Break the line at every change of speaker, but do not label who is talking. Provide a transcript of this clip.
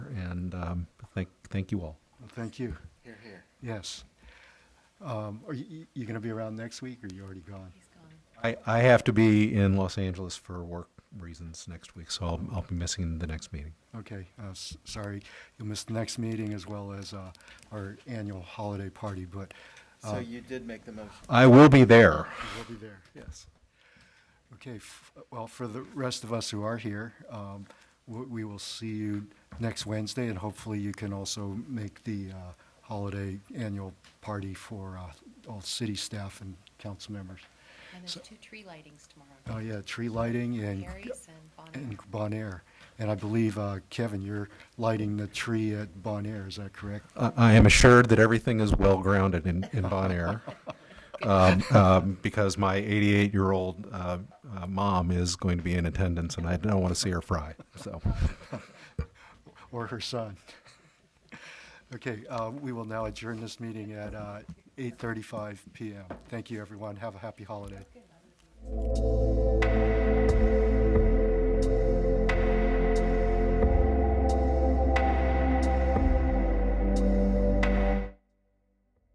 um, thank, thank you all.
Thank you.
Here, here.
Yes. Um, Are you, you going to be around next week, or you already gone?
He's gone.
I, I have to be in Los Angeles for work reasons next week, so I'll, I'll be missing the next meeting.
Okay, uh, s- sorry, you'll miss the next meeting as well as uh, our annual holiday party, but
So you did make the motion.
I will be there.
we'll be there.
Yes.
Okay, f- well, for the rest of us who are here, um, w- we will see you next Wednesday, and hopefully you can also make the uh, holiday annual party for uh, all city staff and council members.
And there's
So-
two tree lightings
Oh,
tomorrow.
yeah, tree lighting and
Harry's and Bonnie.
and Bon Air. And I believe, uh, Kevin, you're lighting the tree at Bon Air, is that correct?
I, I am assured that everything is well grounded in, in Bon Air. Um, um, because my 88 year old uh, uh, mom is going to be in attendance and I don't want to see her fry. So
or her son. Okay, uh, we will now adjourn this meeting at uh, 8:35 PM. Thank you, everyone. Have a happy holiday.